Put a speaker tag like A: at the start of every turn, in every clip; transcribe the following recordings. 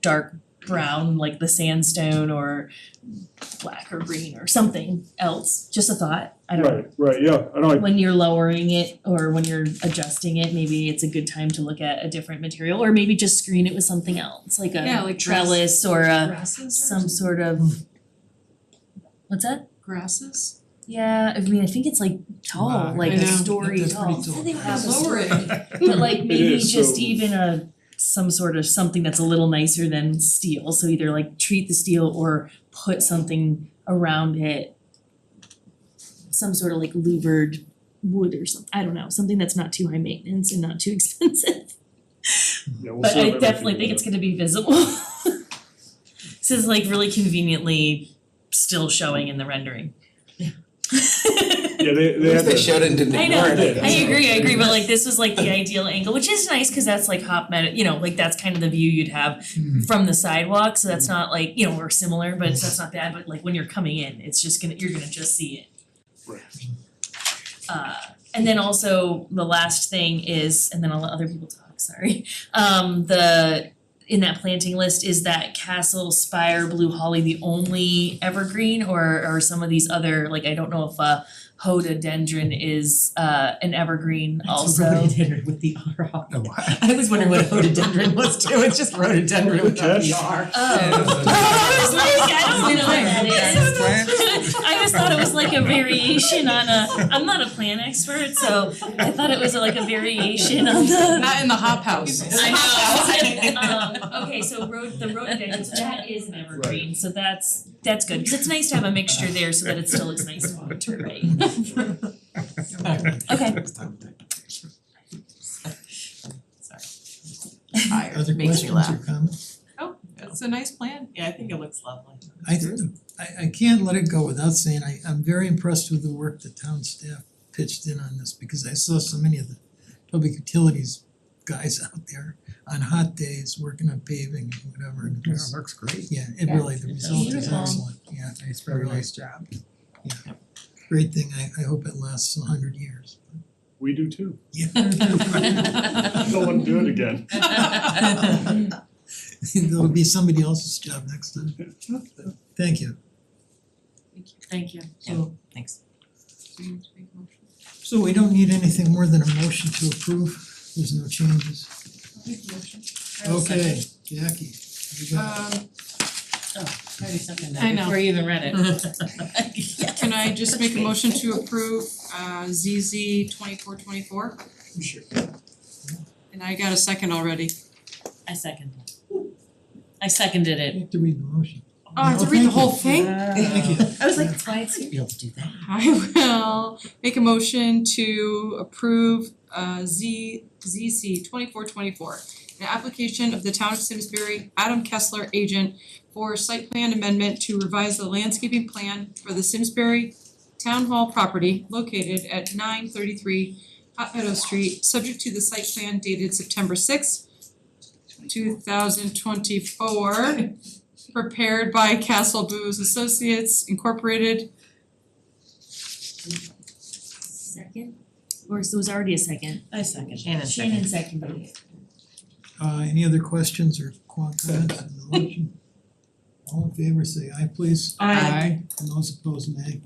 A: dark brown like the sandstone or black or green or something else, just a thought, I don't know.
B: Right, right, yeah, I know, I-
A: When you're lowering it or when you're adjusting it, maybe it's a good time to look at a different material or maybe just screen it with something else, like a
C: Yeah, like
A: trellis or a
C: Grasses or
A: Uh, some sort of what's that?
C: grasses?
A: Yeah, I mean, I think it's like tall,
D: Wow.
A: Oh, like
C: I
A: a
C: know,
A: story
D: that's pretty
A: tall.
D: tall.
A: I think
D: Yeah,
A: that was
C: Lower
A: story.
C: it.
A: But like maybe
B: is,
A: just
B: so-
A: even a, some sort of something that's a little nicer than steel, so either like treat the steel or put something around it. Some sort of like louvered wood or something, I don't know, something that's not too high maintenance and not too expensive.
B: yeah, we'll
A: But
B: see.
A: I definitely think it's gonna be visible. This is like really conveniently still showing in the rendering.
B: Yeah, they
D: At
B: they had
D: least they
B: the,
D: showed it and didn't
A: I know,
D: ignore it, I
A: I
D: guess.
A: agree, I agree, but like this was like the ideal angle, which is nice, cause that's like hop med, you know, like that's kind of the view you'd have
D: Mhm.
A: from the sidewalk, so that's not like, you know, we're similar, but it's- that's not bad, but like when you're coming in, it's just gonna, you're gonna just see it.
B: Right.
A: Uh, and then also the last thing is, and then I'll let other people talk, sorry, um, the, in that planting list, is that castle, spire, blue holly the only evergreen, or or some of these other, like I don't know if uh hododendron is uh an evergreen also.
E: Rhododendron with the R on
D: Oh,
E: it.
D: wow.
E: I was wondering what a rhododendron was too, it's just rhododendron without the R.
A: Oh. I was like, I don't know what that is. I just thought it was like a variation on a, I'm not a plant expert, so I thought it was like a variation on the.
C: Not in the hop house.
A: I
E: know.
A: Um, okay, so road, the rhododendrons, that is an evergreen, so that's, that's good, cause it's nice to have a mixture there so that it still looks nice in winter, right? Okay,
E: Sorry.
D: Other
E: Tired, makes me
D: questions
E: laugh.
D: or comments?
C: It's a nice plan. Yeah, I think it looks lovely.
D: I I I can't let it go without saying I I'm very impressed with the work the town staff pitched in on this because I saw so many of the public utilities guys out there on hot days working on paving and whatever and it was-
F: looks great.
D: yeah, it really, the result is
A: Beautiful.
D: excellent, yeah,
F: It's
D: very
F: very
D: nice
F: nice job.
D: great thing, I I hope it lasts a hundred years.
B: we do too,
D: Yeah,
B: no one do it again.
D: there'll be somebody else's job next time, thank you.
A: thank you.
D: So
E: Thanks.
D: so we don't need anything more than a motion to approve, there's no changes. Okay, Jackie, you got it.
C: Um, I
E: I
C: know.
E: know. Before you even read
C: can I just make a motion to approve uh ZZ twenty-four twenty-four?
D: Sure.
C: And I got a second already.
E: I seconded. I seconded it.
D: You have to read the motion.
C: Oh, I have to read the whole
D: Thank
C: thing?
D: Thank you.
A: I was like, that's why it's
E: You don't have to do that.
C: I will make a motion to approve uh Z ZC twenty-four twenty-four. An application of the town of Simsbury, Adam Kessler, agent, for site plan amendment to revise the landscaping plan for the Simsbury Town Hall property located at nine thirty-three Hot Meadow Street, subject to the site plan dated September sixth, two thousand twenty-four, prepared by Castle Booze Associates Incorporated,
A: Second, or so it was already a second.
E: I seconded. Shannon
A: Shannon
E: seconded.
A: seconded it.
D: Uh any other questions or qua- comments on the motion? All in favor say aye please.
E: Aye.
D: And those opposed nay.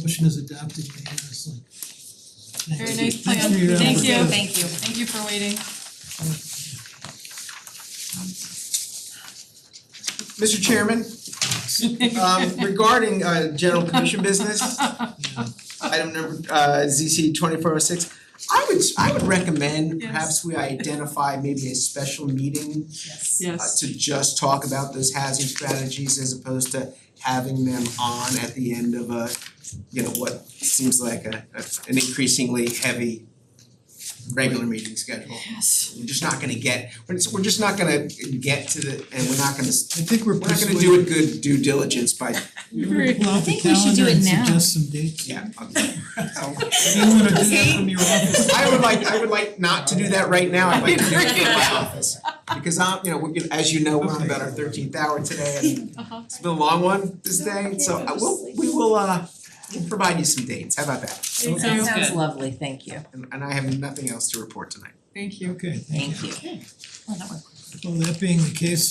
D: Motion is adopted unanimously. Thanks.
C: Very
D: Thanks
C: nice plan.
D: for your
C: Thank
D: effort.
C: you.
D: Yes.
E: Thank you.
C: Thank you for waiting.
F: Mister Chairman, um regarding uh general commission business,
D: Yeah.
F: item number uh ZC twenty four oh six. I would I would recommend
C: Yes.
F: perhaps we identify maybe a special meeting
A: Yes.
F: uh, to just talk about those housing strategies as opposed to having them on at the end of a, you know, what seems like a a- an increasingly heavy regular meeting schedule.
C: Yes.
F: We're just not gonna get, we're just we're just not gonna get to the, and we're not gonna s-
D: I think we're
F: we're not
D: persuaded.
F: gonna do it good due diligence by,
D: We're gonna pull out
A: I
D: the
A: think we should do
D: calendar
A: it
D: and
A: now.
D: suggest some dates.
F: yeah. I'm-
D: You wanna do that from your office?
F: I would like, I would like not to do that right now, I'd like to do it in my
C: Agree.
F: office. Because I'm, you know, we as you know, we're on about our thirteenth hour today and
C: Uh-huh.
F: It's been a long one this day, so I will, we will uh, we'll provide you some dates, how about that?
C: Thank
E: That
C: you.
E: sounds lovely, thank you.
F: And and I have nothing else to report tonight.
C: Thank you.
D: Okay, thank you.
E: Thank you.
A: Well, that worked.
D: Well, that being the case,